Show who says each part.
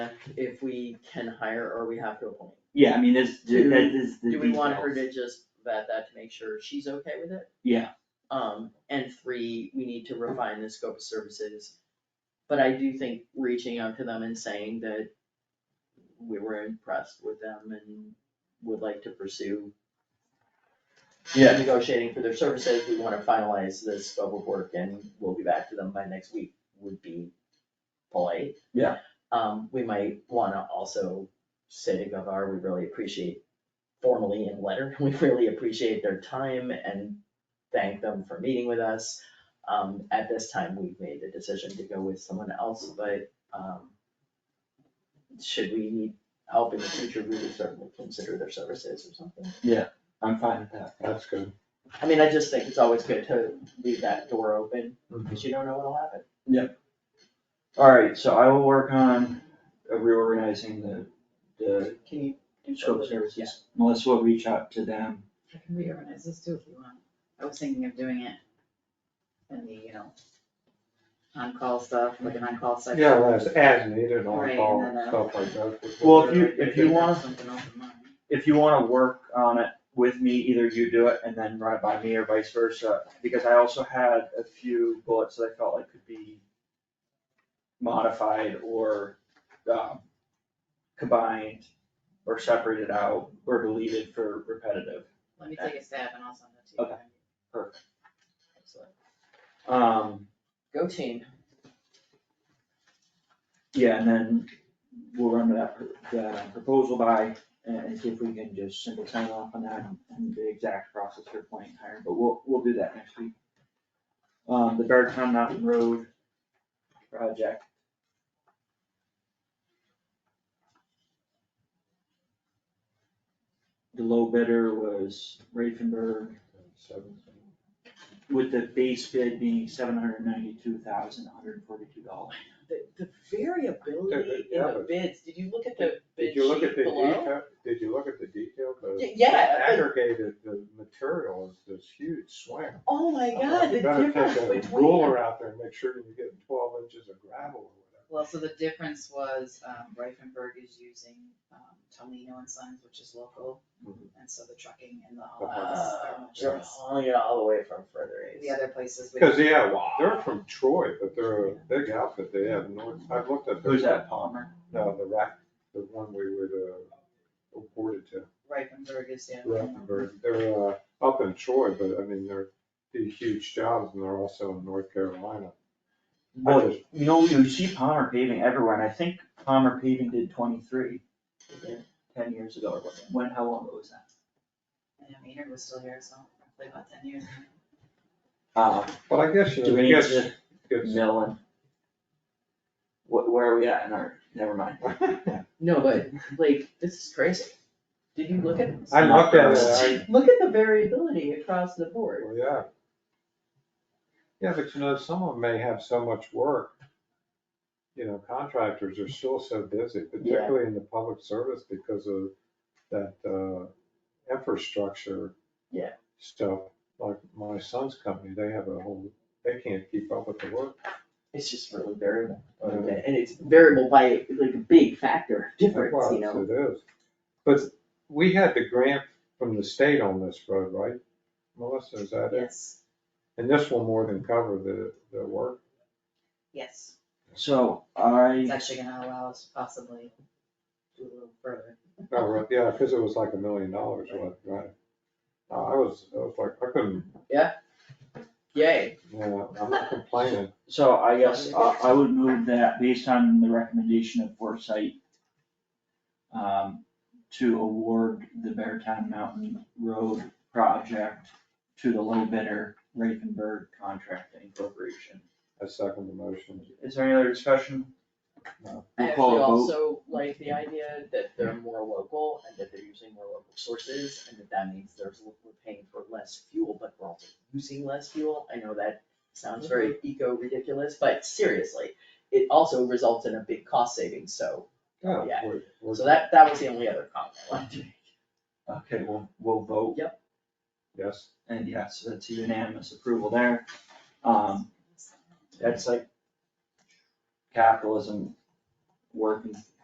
Speaker 1: if we can hire or we have to appoint.
Speaker 2: Yeah, I mean, this,
Speaker 1: Do-
Speaker 2: that is the
Speaker 1: Do we want her
Speaker 2: details.
Speaker 1: to just vet that to make sure she's okay with it?
Speaker 2: Yeah.
Speaker 1: Um, and three, we need to refine the scope of services. But I do think reaching out to them and saying that we were impressed with them and would like to pursue
Speaker 3: Yeah,
Speaker 1: negotiating for their services, we wanna finalize this scope of work and we'll be back to them by next week would be polite.
Speaker 3: Yeah.
Speaker 1: Um, we might wanna also say to Gavar, we really appreciate formally in letter, we really appreciate their time and thank them for meeting with us. Um, at this time, we've made the decision to go with someone else, but, um, should we need help in the future, we would certainly consider their services or something.
Speaker 2: I'm fine with that.
Speaker 3: that's good.
Speaker 1: I mean, I just think it's always good to leave that door open, because you don't know what'll happen.
Speaker 2: Alright, so I will work on reorganizing the, the
Speaker 1: Can you do that?
Speaker 2: scope
Speaker 1: with- yeah.
Speaker 2: services. Melissa will reach out to them.
Speaker 4: I can reorganize this too if you want. I was thinking of doing it in the, you know, on-call stuff, like an on-call section.
Speaker 3: Yeah, well, as, as needed
Speaker 4: Right,
Speaker 3: on
Speaker 4: and
Speaker 3: call
Speaker 4: then, uh,
Speaker 3: stuff like that.
Speaker 2: Well, if you- if
Speaker 4: They
Speaker 2: you
Speaker 4: have
Speaker 2: want-
Speaker 4: Something else in mind.
Speaker 2: If you wanna work on it with me, either you do it and then run it by me or vice versa, because I also had a few bullets that I felt like could be modified or, um, combined or separated out or deleted for repetitive.
Speaker 4: Let me take a stab and I'll send it to you.
Speaker 2: Okay. Perfect. Um,
Speaker 1: Go team.
Speaker 2: Yeah, and then we'll run that, that proposal by and and see if we can just simply sign off on that and the exact process for appointing hiring, but we'll, we'll do that next week. Um, the Beartown Mountain Road project. The low bidder was Raifenberg with the base bid being seven hundred ninety-two thousand, one hundred forty-two dollars.
Speaker 1: The, the variability in
Speaker 3: Yeah,
Speaker 1: the
Speaker 3: but-
Speaker 1: bids, did you look at the bid
Speaker 3: Did you look
Speaker 1: sheet
Speaker 3: at the
Speaker 1: below?
Speaker 3: detail, did you look at the detail? 'Cause
Speaker 1: Y- yeah, but-
Speaker 3: Aggregated, the material is this huge swing.
Speaker 1: Oh my god, the
Speaker 3: You better
Speaker 1: difference
Speaker 3: take a
Speaker 1: between,
Speaker 3: ruler out there and make sure you're getting twelve inches of gravel or whatever.
Speaker 4: Well, so the difference was, um, Reifenberg is using, um, Tomino and Sons, which is local.
Speaker 2: Mm-hmm.
Speaker 4: And so the trucking and the haul
Speaker 1: uh,
Speaker 4: are much
Speaker 1: you're
Speaker 4: less.
Speaker 1: hauling it all the way from further east.
Speaker 4: The other places we.
Speaker 3: Cause yeah, well, they're from Troy, but they're a big outfit, they have no, I've looked at. their-
Speaker 2: Who's that, Palmer?
Speaker 3: No, the rack, the one we would, uh, report it to.
Speaker 4: Reifenberg is, yeah.
Speaker 3: Rutherford, they're uh, up in Troy, but I mean, they're, do huge jobs and they're also in North Carolina. I
Speaker 2: Well,
Speaker 3: just-
Speaker 2: you know, you see Palmer paving everywhere, and I think Palmer paving did twenty-three ten years ago or what, when, how long ago was that?
Speaker 4: And I mean, it was still here, so roughly about ten years.
Speaker 2: Uh,
Speaker 3: But I guess, you
Speaker 2: do we
Speaker 3: know, I
Speaker 2: need
Speaker 3: guess,
Speaker 2: to
Speaker 3: it's-
Speaker 2: mill and? Wh- where are we at in our, never mind.
Speaker 1: No, but like, this is crazy. Did you look at,
Speaker 3: I looked at it,
Speaker 1: look at the variability across the
Speaker 3: I,
Speaker 1: board.
Speaker 3: well, yeah. Yeah, but you know, some of them may have so much work. You know, contractors are still so busy, particularly in the public service because of that, uh, infrastructure.
Speaker 1: Yeah.
Speaker 3: Stuff, like my son's company, they have a whole, they can't keep up with the work.
Speaker 1: It's just really variable.
Speaker 3: Mhm.
Speaker 1: And it's variable by like a big factor difference,
Speaker 3: Well,
Speaker 1: you know?
Speaker 3: It is, but we had the grant from the state on this road, right? Melissa, is that it?
Speaker 4: Yes,
Speaker 3: And this will more than cover the, the work.
Speaker 4: yes,
Speaker 2: So
Speaker 4: it's
Speaker 2: I,
Speaker 4: actually gonna allow us to possibly do a little further.
Speaker 1: Uh-huh.
Speaker 3: Oh, right, yeah, because it was like a million dollars, right, right? Uh, I was, I was like, I couldn't,
Speaker 1: Yay.
Speaker 3: yeah, I'm not complaining.
Speaker 2: so I guess I, I would move that based on the recommendation of Foresight um, to award the Beartown Mountain Road project to the low bidder, Ravenberg Contracting Corporation.
Speaker 3: I second the motion.
Speaker 2: Is there any other discussion?
Speaker 3: No.
Speaker 1: I
Speaker 2: We'll call
Speaker 1: actually
Speaker 2: a vote.
Speaker 1: also like the idea that they're more local and that they're using more local sources and that that means there's, we're paying for less fuel, but we're also using less fuel. I know that sounds very eco ridiculous, but seriously, it also results in a big cost savings, so,
Speaker 3: Yeah,
Speaker 1: Oh, Yeah.
Speaker 3: we're- we're-
Speaker 1: so that, that was the only other comment I wanted to make.
Speaker 2: Okay, we'll, we'll vote,
Speaker 3: Yes,
Speaker 2: and yes, that's a unanimous approval there. Um, that's like capitalism working